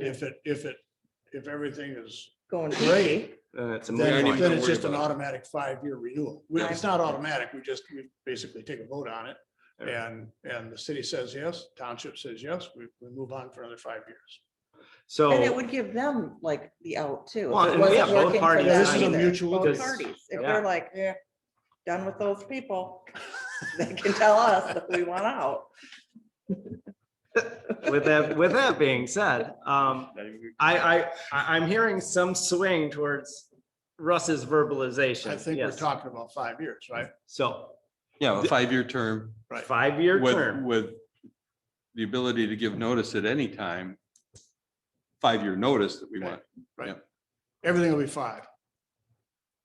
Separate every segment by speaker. Speaker 1: If it, if it, if everything is
Speaker 2: going.
Speaker 1: great,
Speaker 3: Uh, it's a moot
Speaker 1: then,
Speaker 3: point.
Speaker 1: then
Speaker 4: don't
Speaker 1: it's
Speaker 4: worry
Speaker 1: just an
Speaker 4: about it.
Speaker 1: automatic five-year renewal. Well, It's not automatic, we just, we basically take a vote on it.
Speaker 3: Alright.
Speaker 1: And, and the city says yes, township says yes, we, we move on for another five years.
Speaker 2: And it
Speaker 3: So,
Speaker 2: would give them like the out too. if it
Speaker 3: Well, and we
Speaker 2: wasn't
Speaker 3: have both
Speaker 2: working for
Speaker 3: parties
Speaker 2: them
Speaker 1: This is a
Speaker 2: either.
Speaker 1: mutual-
Speaker 2: Both
Speaker 3: Because-
Speaker 2: Parties, if
Speaker 3: yeah.
Speaker 2: they're like, yeah, done with those people, they can tell us that we want out.
Speaker 3: with that, with that being said, um, I, I, I, I'm hearing some swing towards Russ's verbalization.
Speaker 1: I think we're
Speaker 3: yes.
Speaker 1: talking about five years, right?
Speaker 3: So,
Speaker 4: Yeah, a five-year term
Speaker 1: Right.
Speaker 3: five-year
Speaker 4: with,
Speaker 3: term,
Speaker 4: with the ability to give notice at any time. Five-year notice that we want.
Speaker 1: Everything will be five.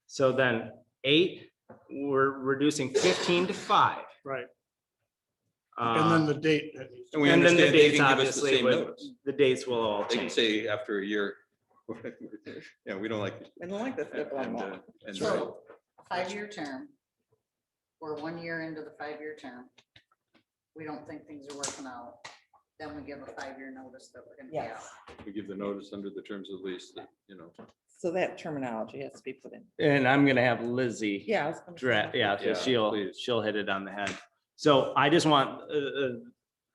Speaker 3: so then eight, we're reducing fifteen to five.
Speaker 1: Right. And then
Speaker 3: Uh,
Speaker 1: the date,
Speaker 4: And we
Speaker 3: And then the
Speaker 4: understand they
Speaker 3: dates,
Speaker 4: can give us the
Speaker 3: obviously,
Speaker 4: same
Speaker 3: would-
Speaker 4: notice.
Speaker 3: the dates will all
Speaker 4: They can
Speaker 3: change.
Speaker 4: say after a year. Yeah, we don't like.
Speaker 2: I don't like this. they're going
Speaker 4: and, uh,
Speaker 2: out.
Speaker 4: and, uh,
Speaker 5: So, five-year term, or one year into the five-year term, we don't think things are working out, then we give a five-year notice that we're gonna be out.
Speaker 2: Yes,
Speaker 4: We give the notice under the terms of lease that, you know.
Speaker 2: so that terminology has to be put in.
Speaker 3: And I'm gonna have Lizzie.
Speaker 2: Yeah. I was gonna say
Speaker 3: Dra-
Speaker 2: that.
Speaker 3: yeah, so
Speaker 4: Yeah,
Speaker 3: she'll,
Speaker 4: please.
Speaker 3: she'll hit it on the head. So I just want, uh, uh,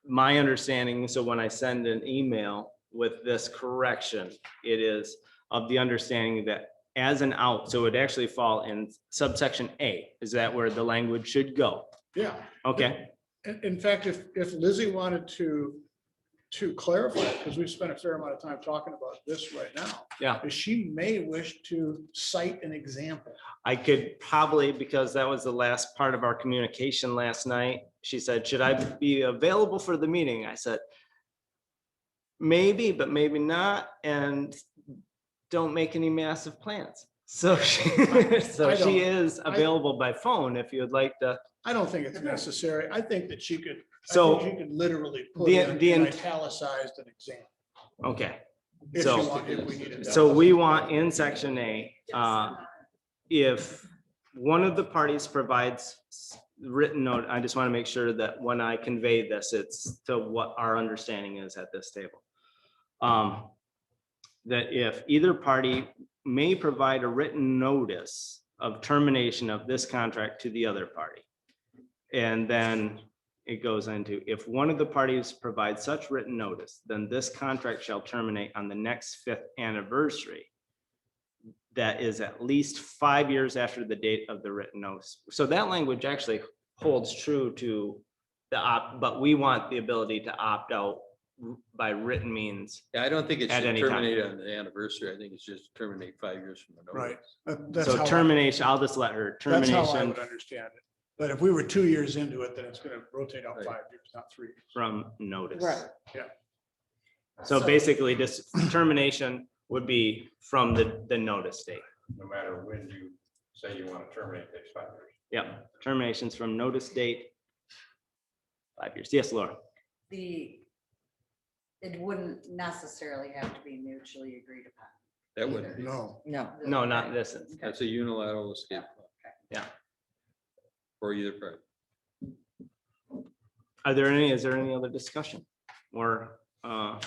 Speaker 3: my understanding, so when I send an email with this correction, it is of the understanding that as an out, so it actually fall in subsection A, is that where the language should go?
Speaker 1: yeah.
Speaker 3: Okay,
Speaker 1: In, in fact, if, if Lizzie wanted to, to clarify, because we've spent a fair amount of time talking about this right now.
Speaker 3: Yeah.
Speaker 1: is She may wish to cite an example.
Speaker 3: I could probably, because that was the last part of our communication last night, she said, should I be available for the meeting? I said, maybe, but maybe not, and don't make any massive plans. So she, so
Speaker 1: I don't-
Speaker 3: she is available by phone if you'd like to.
Speaker 1: I don't think it's necessary. I think that she could, I think
Speaker 3: So,
Speaker 1: she could literally put
Speaker 3: The-
Speaker 1: in
Speaker 3: the-
Speaker 1: an italicized an example.
Speaker 3: okay,
Speaker 1: If she
Speaker 3: So-
Speaker 1: wanted, if we needed that.
Speaker 3: so we want in section A, uh, if one of the parties provides s- written note, I just want to make sure that when I convey this, it's to what our understanding is at this table. Um, That if either party may provide a written notice of termination of this contract to the other party. And then it goes into, if one of the parties provides such written notice, then this contract shall terminate on the next fifth anniversary that is at least five years after the date of the written notice. So that language actually holds true to the opt, but we want the ability to opt out by written means.
Speaker 4: Yeah, I don't think it
Speaker 3: At
Speaker 4: should
Speaker 3: any time.
Speaker 4: terminate on the anniversary. I think it's just terminate five years from the
Speaker 1: Right.
Speaker 4: notice.
Speaker 1: That- That's how,
Speaker 3: So
Speaker 1: I-
Speaker 3: termination, I'll just let her
Speaker 1: that's how I
Speaker 3: termination
Speaker 1: would understand it. But if we were two years into it, then it's gonna rotate out
Speaker 4: Right.
Speaker 1: five years, not three.
Speaker 3: from notice.
Speaker 2: Right.
Speaker 3: So basically, this termination would be from the, the notice date.
Speaker 6: no matter when you say you want to terminate these five years.
Speaker 3: Yep, terminations from notice date. Five years. Yes, Laura.
Speaker 5: The, it wouldn't necessarily have to be mutually agreed upon.
Speaker 4: That wouldn't be,
Speaker 1: No,
Speaker 2: No,
Speaker 3: No, not this. instance.
Speaker 4: that's a unilateral escape.
Speaker 3: Yeah.
Speaker 4: For either party.
Speaker 3: Are there any, is there any other discussion or, uh,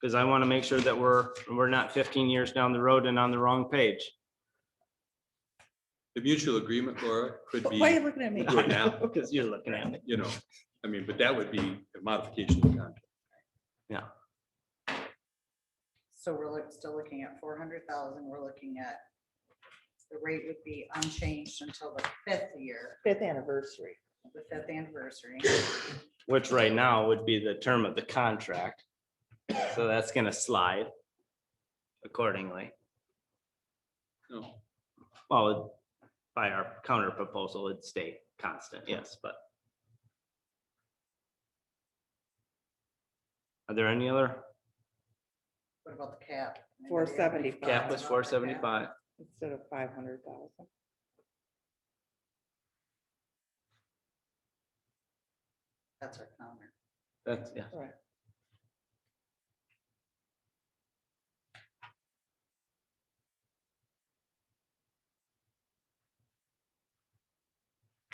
Speaker 3: because I want to make sure that we're, we're not fifteen years down the road and on the wrong page.
Speaker 4: The mutual agreement, Laura, could
Speaker 2: But why are
Speaker 4: be,
Speaker 2: you looking at me?
Speaker 4: Do it now.
Speaker 3: Because you're looking at me.
Speaker 4: you know, I mean, but that would be a modification of the contract.
Speaker 5: So we're look- still looking at four hundred thousand, we're looking at, the rate would be unchanged until the fifth year,
Speaker 2: Fifth anniversary.
Speaker 5: the fifth anniversary.
Speaker 3: Which right now would be the term of the contract. So that's gonna slide accordingly.
Speaker 4: No,
Speaker 3: Well, by our counter proposal, it'd stay constant, yes, but. Are there any other?
Speaker 5: What about the cap? Anybody have any
Speaker 2: 475.
Speaker 3: Cap was
Speaker 5: thoughts about the
Speaker 3: four seventy-five.
Speaker 2: Instead of five hundred thousand.
Speaker 5: That's our counter.
Speaker 3: That's, yeah.
Speaker 2: Right.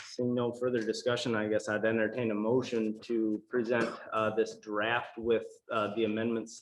Speaker 3: Seeing no further discussion, I guess I'd entertain a motion to present uh, this draft with uh, the amendments